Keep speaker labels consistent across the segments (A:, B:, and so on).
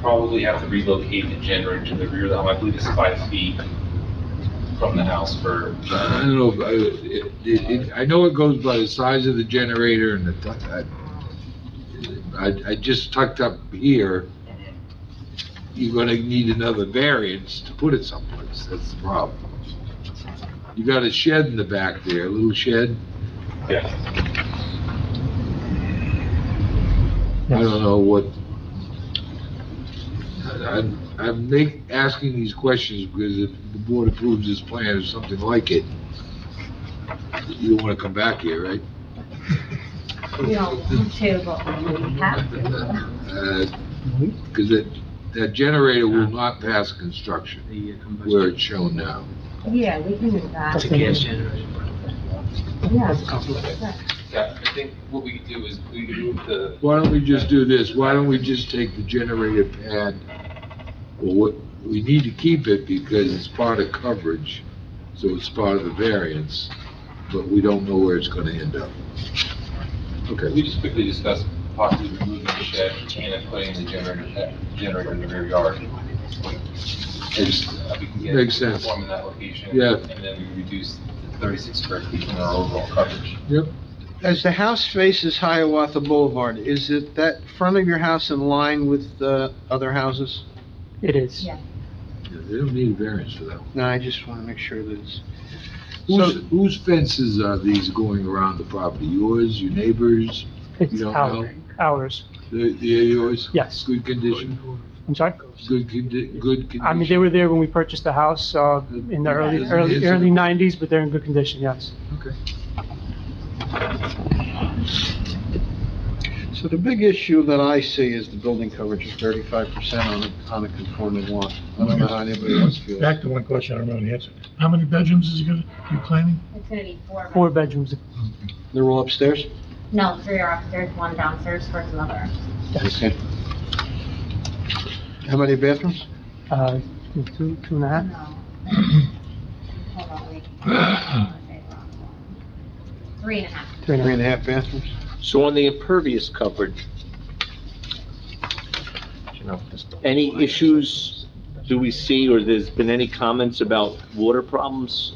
A: probably have to relocate the generator to the rear of the home. I believe it's five feet from the house for,
B: I don't know, if I, it, it, I know it goes by the size of the generator and the, tu- I, I, I just tucked up here. You're gonna need another variance to put it someplace, that's the problem. You got a shed in the back there, a little shed,
A: yeah.
B: I don't know what. I- I'm, I'm make, asking these questions because if the board approves this plan or something like it, you don't wanna come back here, right?
C: We don't table what we have to.
B: Because Uh, that, that generator will not pass construction where it's shown now.
C: Yeah, we can do that.
D: That's a gas generator.
C: Yeah.
A: Yeah, I think what we could do is we could move the,
B: Why don't we just do this? Why don't we just take the generator pad? Well, what, we need to keep it because it's part of coverage, so it's part of the variance, but we don't know where it's gonna end up.
A: we
B: Okay,
A: just quickly discussed possibly removing the shed and putting the generator, generator in the rear yard. Just, uh, we can get
B: Makes sense.
A: Form in that location.
B: Yeah.
A: And then we reduce the thirty-six square feet from our overall coverage.
B: yep,
D: As the house faces Hiawatha Boulevard, is it that front of your house in line with the other houses?
E: It is.
C: Yeah.
B: Yeah, they don't need a variance for that one.
D: No, I just want to make sure that it's,
B: Whose, whose fences are these going around the property? Yours, your neighbors? You
E: It's
B: don't
E: our- ours.
B: They're, they're yours?
E: Yes.
B: Good condition?
E: I'm sorry?
B: Good condi, good condition?
E: I mean, they were there when we purchased the house, uh, in the early,
B: Yeah.
E: early, early nineties, but they're in good condition, yes.
B: Okay.
D: so the big issue that I see is the building coverage of thirty-five percent on a, on a conforming lot. I don't know how anybody else feels.
F: Back to one question I don't know the answer. How many bedrooms is he gonna, you planning?
C: It's gonna be four.
E: Four bedrooms,
D: They're all upstairs?
C: No, three are upstairs, one downstairs, for another.
E: yes.
D: Okay. How many bathrooms?
E: Uh, two, two and a half.
C: No. Hold on, wait. I wanna say the wrong one. Three and a half.
E: Three and a
D: Three
E: half.
D: and a half bathrooms?
G: So on the impervious coverage, any issues do we see, or there's been any comments about water problems?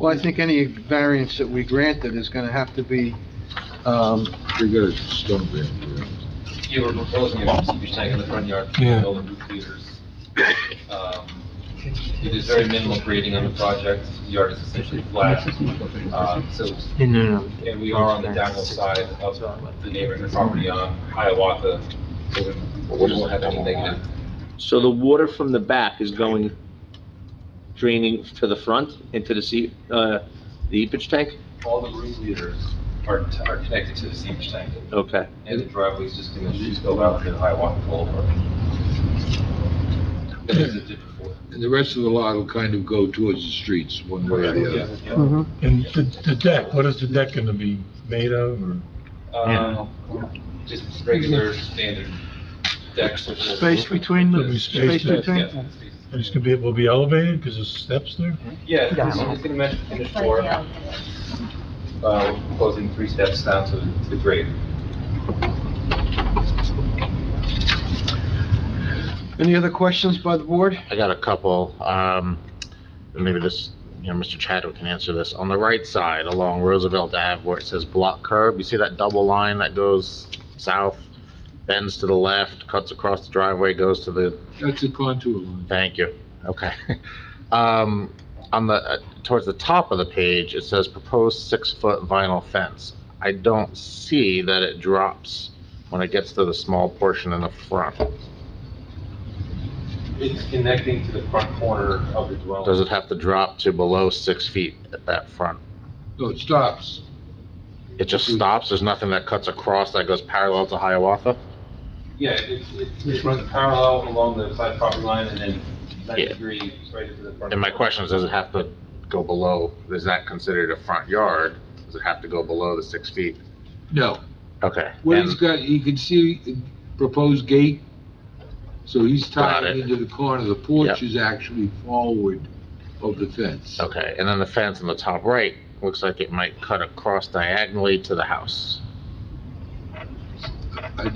D: Well, I think any variance that we grant that is going to have to be, um,
B: They got a stone bench there.
A: Yeah, we're proposing a seepage tank in the front yard for
F: Yeah.
A: all the roof leaders. Um, It is very minimal grading on the project, the yard is essentially flat, um, so,
E: No, no,
A: and we are on the downhill side of the neighboring property on Hiawatha. so We we won't have any negative.
G: So the water from the back is going draining to the front into the sea, uh, the eepage tank?
A: All the roof leaders are, are connected to the seepage tank,
G: Okay.
A: and the driveway is just gonna just go out to Hiawatha Boulevard. That is it before.
B: And the rest of the lot will kind of go towards the streets, one way or the other.
A: Oh, Yeah, yeah.
E: no.
F: And the, the deck, what is the deck gonna be made of, or?
A: Uh, just regular standard decks. with-
D: space between
A: It'll
D: the,
A: be
D: space
F: space
D: between?
A: Yeah, space.
F: And it's gonna be, will it be elevated, because there's steps there?
A: Yeah, it's it's gonna match the finished
C: It's
A: floor,
C: like,
A: uh,
C: yeah.
A: we're proposing three steps down to to the grade.
D: Any other questions by the board?
H: I got a couple, um, and maybe this, you know, Mr. Chadwick can answer this. On the right side along Roosevelt Ave where it says block curb, you see that double line that goes south, bends to the left, cuts across the driveway, goes to the,
B: That's a contour line.
H: thank you, okay. Um, on the, uh, towards the top of the page, it says proposed six-foot vinyl fence. I don't see that it drops when it gets to the small portion in the front.
A: It's connecting to the front corner of the dwelling.
H: Does it have to drop to below six feet at that front?
B: No, it stops.
H: It just stops, there's nothing that cuts across that goes parallel to Hiawatha?
A: Yeah, it, it, it runs parallel along the side property line and then ninety
H: Yeah.
A: degrees right into the front.
H: And my
A: corner.
H: question is, does it have to go below, is that considered a front yard? Does it have to go below the six feet?
B: No.
H: Okay.
B: What he's
H: and-
B: got, you can see the proposed gate. So he's
H: Got
B: tied
H: it.
B: into the corner. The porch
H: Yep.
B: is actually forward of the fence.
H: Okay, and then the fence on the top right, looks like it might cut across diagonally to the house.